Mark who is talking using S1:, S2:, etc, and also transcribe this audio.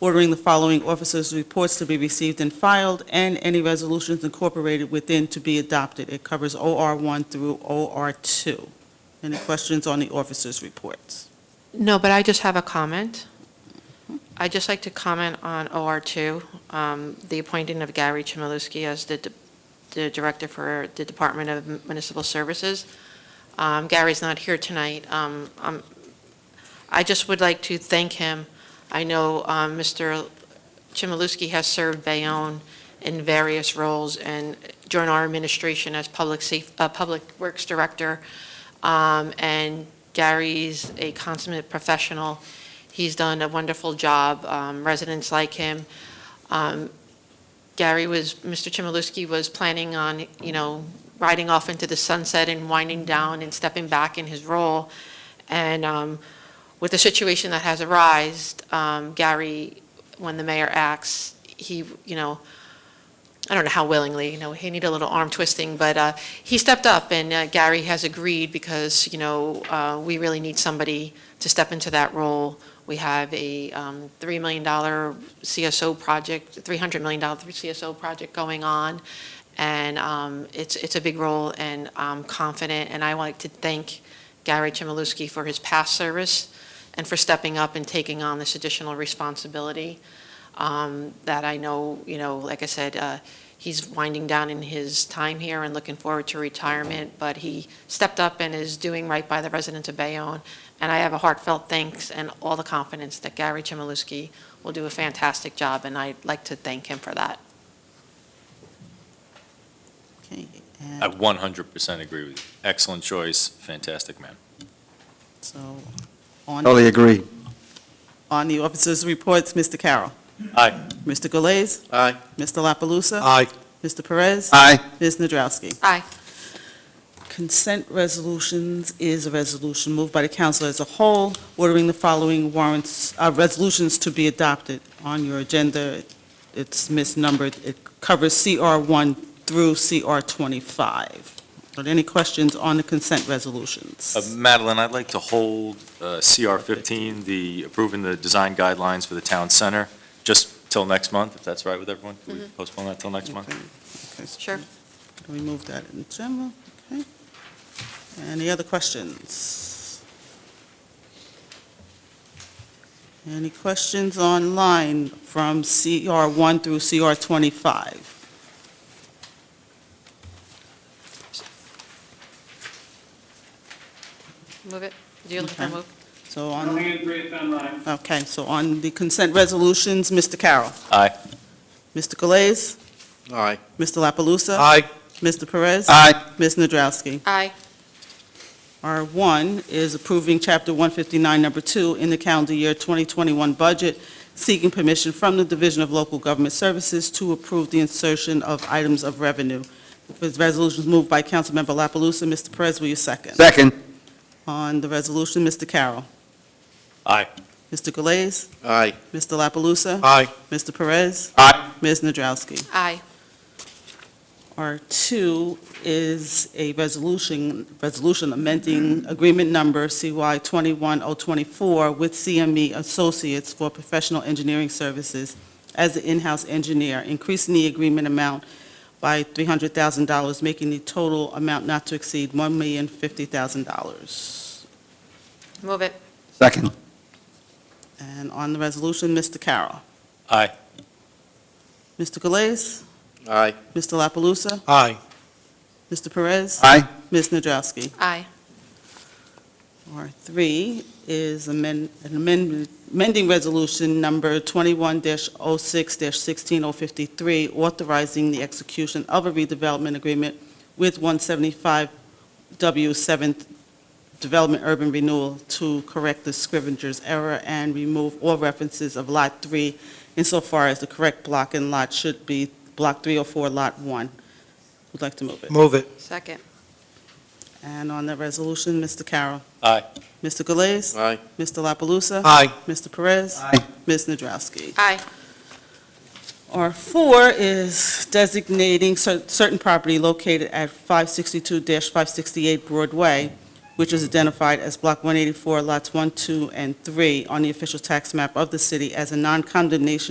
S1: ordering the following officers' reports to be received and filed, and any resolutions incorporated within to be adopted. It covers OR1 through OR2. Any questions on the officers' reports?
S2: No, but I just have a comment. I'd just like to comment on OR2, um, the appointing of Gary Chmielewski as the d- the Director for the Department of Municipal Services. Um, Gary's not here tonight. Um, um, I just would like to thank him. I know um, Mr. Chmielewski has served Bayonne in various roles and joined our administration as Public Saf- uh, Public Works Director. Um, And Gary's a consummate professional. He's done a wonderful job. Um, Residents like him. Um, Gary was, Mr. Chmielewski was planning on, you know, riding off into the sunset and winding down and stepping back in his role. And um, with the situation that has arisen, um, Gary, when the mayor acts, he, you know, I don't know how willingly, you know, he needed a little arm twisting, but uh, he stepped up, and uh, Gary has agreed because, you know, uh, we really need somebody to step into that role. We have a um, $3 million CSO project, $300 million CSO project going on, and um, it's, it's a big role, and I'm confident, and I would like to thank Gary Chmielewski for his past service and for stepping up and taking on this additional responsibility um, that I know, you know, like I said, uh, he's winding down in his time here and looking forward to retirement, but he stepped up and is doing right by the residents of Bayonne. And I have a heartfelt thanks and all the confidence that Gary Chmielewski will do a fantastic job, and I'd like to thank him for that.
S1: Okay,
S3: I
S1: and
S3: 100% agree with you. Excellent choice, fantastic man.
S1: so, on,
S4: Totally agree.
S1: on the officers' reports, Mr. Carroll.
S3: Aye.
S1: Mr. Galais.
S3: Aye.
S1: Mr. La Palusa?
S4: Aye.
S1: Mr. Perez?
S4: Aye.
S1: Ms. Nadrowski?
S2: Aye.
S1: Consent resolutions is a resolution moved by the council as a whole, ordering the following warrants, uh, resolutions to be adopted on your agenda. It's misnumbered. It covers CR1 through CR25. Are there any questions on the consent resolutions?
S3: Uh, Madeline, I'd like to hold uh, CR 15, the approving the design guidelines for the town center, just till next month, if that's right with everyone. Can we postpone that till next month?
S1: Okay, okay.
S2: Sure.
S1: Can we move that in general? Okay. Any other questions? Any questions online from CR1 through CR25?
S2: Move it. Do you look for a
S1: Okay.
S2: move?
S1: So
S5: No
S1: on,
S5: hands raised online.
S1: okay, so on the consent resolutions, Mr. Carroll.
S3: Aye.
S1: Mr. Galais?
S4: Aye.
S1: Mr. La Palusa?
S4: Aye.
S1: Mr. Perez?
S4: Aye.
S1: Ms. Nadrowski?
S2: Aye.
S1: R1 is approving Chapter 159, Number 2, in the calendar year 2021 budget, seeking permission from the Division of Local Government Services to approve the insertion of items of revenue. This resolution is moved by Councilmember La Palusa. Mr. Perez, will you second?
S4: Second.
S1: On the resolution, Mr. Carroll.
S3: Aye.
S1: Mr. Galais.
S4: Aye.
S1: Mr. La Palusa.
S4: Aye.
S1: Mr. Perez.
S4: Aye.
S1: Ms. Nadrowski.
S2: Aye.
S1: R2 is a resolution, resolution amending agreement number CY 21024 with CME Associates for professional engineering services as the in-house engineer, increasing the agreement amount by $300,000, making the total amount not to exceed $1,050,000.
S2: Move it.
S4: Second.
S1: And on the resolution, Mr. Carroll.
S3: Aye.
S1: Mr. Galais?
S4: Aye.
S1: Mr. La Palusa?
S4: Aye.
S1: Mr. Perez?
S4: Aye.
S1: Ms. Nadrowski?
S2: Aye.
S1: R3 is amend- an amendment- amending Resolution Number 21-06-16053, authorizing the execution of a redevelopment agreement with 175W 7th Development Urban Renewal to correct the scrivener's error and remove all references of Lot 3 insofar as the correct block and lot should be Block 304, Lot 1. Would like to move it.
S4: Move it.
S2: Second.
S1: And on that resolution, Mr. Carroll.
S3: Aye.
S1: Mr. Galais.
S4: Aye.
S1: Mr. La Palusa?
S4: Aye.
S1: Mr. Perez?
S4: Aye.
S1: Ms. Nadrowski?
S2: Aye.
S1: R4 is designating cer- certain property located at 562-568 Broadway which is identified as Block 184, Lots 1, 2, and 3 on the official tax map of the city as a non-condemnation